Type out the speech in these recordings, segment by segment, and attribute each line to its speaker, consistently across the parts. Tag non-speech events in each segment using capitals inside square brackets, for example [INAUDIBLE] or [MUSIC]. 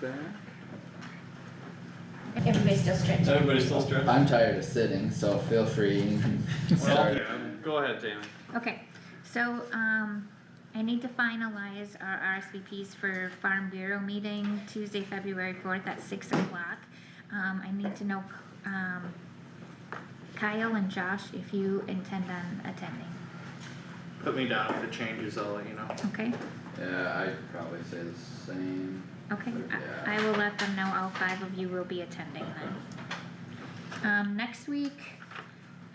Speaker 1: back.
Speaker 2: Everybody's still stretching.
Speaker 3: Everybody's still stretching?
Speaker 4: I'm tired of sitting, so feel free, you can
Speaker 3: Well,
Speaker 4: start.
Speaker 3: go ahead, Jamie.
Speaker 2: Okay, so, um, I need to finalize our RSVPs for Farm Bureau meeting Tuesday, February fourth at six o'clock. Um, I need to know, um, Kyle and Josh, if you intend on attending,
Speaker 5: Put me down if it changes, I'll let you know.
Speaker 2: okay?
Speaker 4: Yeah, I'd probably say the same.
Speaker 2: Okay,
Speaker 4: Yeah.
Speaker 2: I, I will let them know all five of you will be attending then. Um, next week,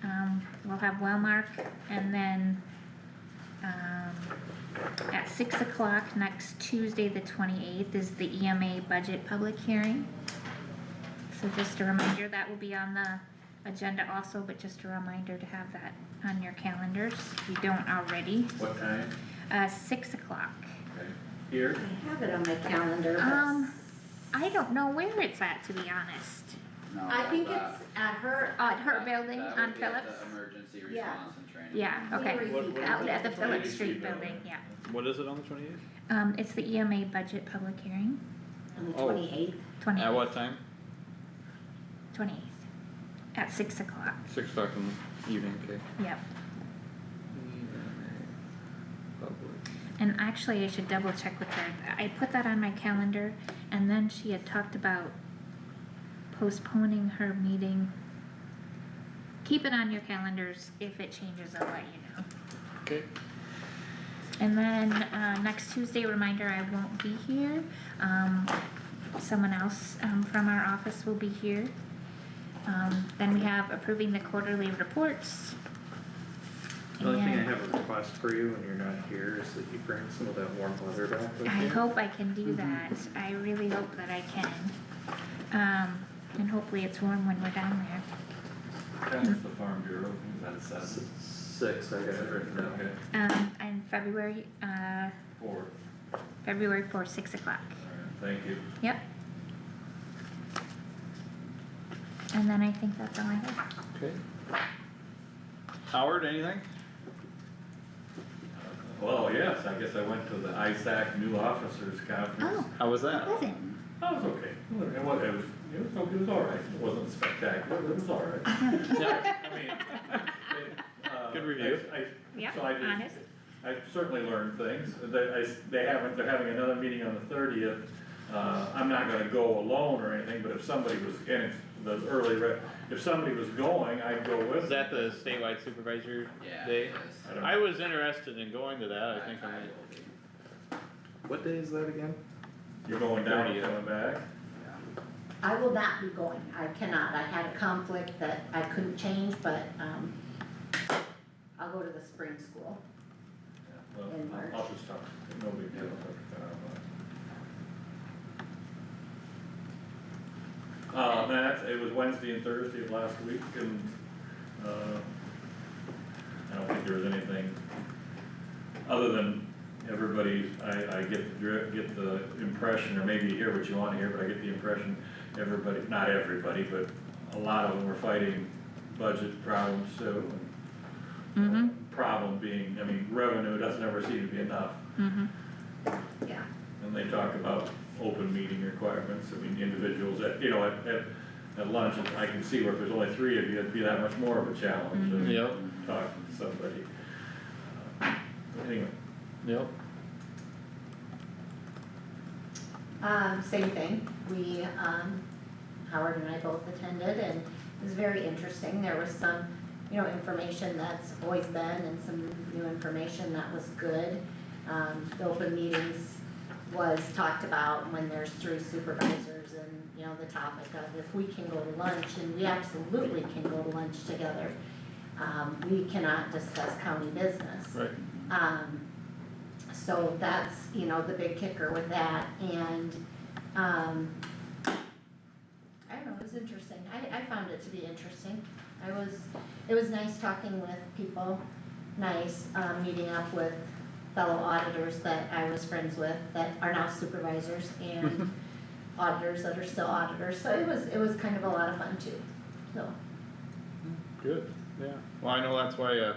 Speaker 2: um, we'll have Wellmark and then, um, at six o'clock next Tuesday, the twenty-eighth, is the EMA budget public hearing. So just a reminder, that will be on the agenda also, but just a reminder to have that on your calendars, if you don't already,
Speaker 5: What time?
Speaker 2: uh, six o'clock.
Speaker 5: Here?
Speaker 6: I have it on my calendar, but
Speaker 2: Um, I don't know where it's at, to be honest.
Speaker 4: No,
Speaker 6: I think
Speaker 4: that-
Speaker 6: it's at her,
Speaker 2: Uh, At her
Speaker 4: that-
Speaker 2: building
Speaker 4: that
Speaker 2: on
Speaker 4: would be at
Speaker 2: Phillips?
Speaker 4: the emergency
Speaker 6: Yeah.
Speaker 4: response and training.
Speaker 2: Yeah, okay.
Speaker 6: Here.
Speaker 3: What- what
Speaker 2: Out
Speaker 3: is
Speaker 2: at the
Speaker 3: it?
Speaker 2: Phillips
Speaker 3: ABC
Speaker 2: Street building, yeah.
Speaker 3: What is it on the twenty-eighth?
Speaker 2: Um, it's the EMA budget public hearing,
Speaker 6: on the
Speaker 3: Oh.
Speaker 6: twenty-eighth,
Speaker 2: twenty,
Speaker 3: At what time?
Speaker 2: twenty-eighth, at six o'clock,
Speaker 3: Six o'clock in the evening, okay.
Speaker 2: yep. And actually, I should double check with her. I put that on my calendar and then she had talked about postponing her meeting. Keep it on your calendars. If it changes, I'll let you know.
Speaker 3: Okay.
Speaker 2: And then, uh, next Tuesday, reminder, I won't be here, um, someone else, um, from our office will be here. Um, then we have approving the quarterly reports.
Speaker 5: The only thing I
Speaker 2: And
Speaker 5: have a request for you when you're not here is that you bring some of that warm weather back with you.
Speaker 2: I hope I can do that, I really hope that I can. Um, and hopefully it's warm when we're down there.
Speaker 7: That's the Farm Bureau, is that
Speaker 5: S-
Speaker 7: seven?
Speaker 5: Six, I got it written down.
Speaker 7: Okay,
Speaker 2: Um, and February, uh,
Speaker 7: four,
Speaker 2: February fourth, six o'clock.
Speaker 7: alright, thank you.
Speaker 2: Yep. And then I think that's all I have.
Speaker 3: Okay. Howard, anything?
Speaker 7: Well, yes, I guess I went to the ISAC New Officers Conference.
Speaker 2: Oh.
Speaker 3: How was that?
Speaker 2: Pleasant.
Speaker 7: That was okay, it was, it was, it was, okay. it was alright, it wasn't spectacular, but it was [LAUGHS] alright. I mean, it, uh,
Speaker 3: Good review.
Speaker 7: I, I-
Speaker 2: Yeah,
Speaker 7: so I did-
Speaker 2: honest.
Speaker 7: I certainly learned things, they, I s- they haven't, they're having another meeting on the thirtieth. Uh, I'm not gonna go alone or anything, but if somebody was, and if the early, re- if somebody was going, I'd go with
Speaker 3: Was that the statewide supervisor
Speaker 4: Yeah.
Speaker 3: day?
Speaker 4: it is.
Speaker 7: I don't
Speaker 3: I was interested in going to that, I think
Speaker 4: I will
Speaker 3: I
Speaker 4: be.
Speaker 5: What day is that again?
Speaker 7: You're going down and
Speaker 3: 30th.
Speaker 7: coming back?
Speaker 6: I will not be going, I cannot, I had a conflict that I couldn't change, but, um, I'll go to the spring school.
Speaker 7: Well,
Speaker 6: In March.
Speaker 7: I'll just talk, no big deal. Uh, Matt, it was Wednesday and Thursday of last week and, uh, I don't think there was anything other than everybody, I, I get the dri get the impression, or maybe you hear what you wanna hear, but I get the impression everybody, not everybody, but a lot of them were fighting budget problems, so.
Speaker 2: Mm-hmm,
Speaker 7: Problem being, I mean, revenue doesn't ever seem to be enough,
Speaker 2: mm-hmm.
Speaker 6: Yeah.
Speaker 7: and they talk about open meeting requirements, I mean, individuals at, you know, at, at, at lunch, I can see where if there's only three of you, it'd be that much more of a challenge
Speaker 3: might.
Speaker 7: than
Speaker 3: Yep,
Speaker 7: talking to somebody. Uh, Anyway,
Speaker 3: yep.
Speaker 6: Um, same thing, we, um, Howard and I both attended and it was very interesting, there was some, you know, information that's always been and some new information that was good. Um, the open meetings was talked about when there's three supervisors and, you know, the topic of if we can go to lunch and we absolutely can go to lunch together. Um, we cannot discuss county business.
Speaker 3: Right.
Speaker 6: Um, so that's, you know, the big kicker with that and, um, I don't know, it was interesting. I, I found it to be interesting. I was, it was nice talking with people, nice, um, meeting up with fellow auditors that I was friends with that are now supervisors and auditors that are still auditors. So it was, it was kind of a lot of fun too, so.
Speaker 3: Good, yeah. Well, I know that's why, uh,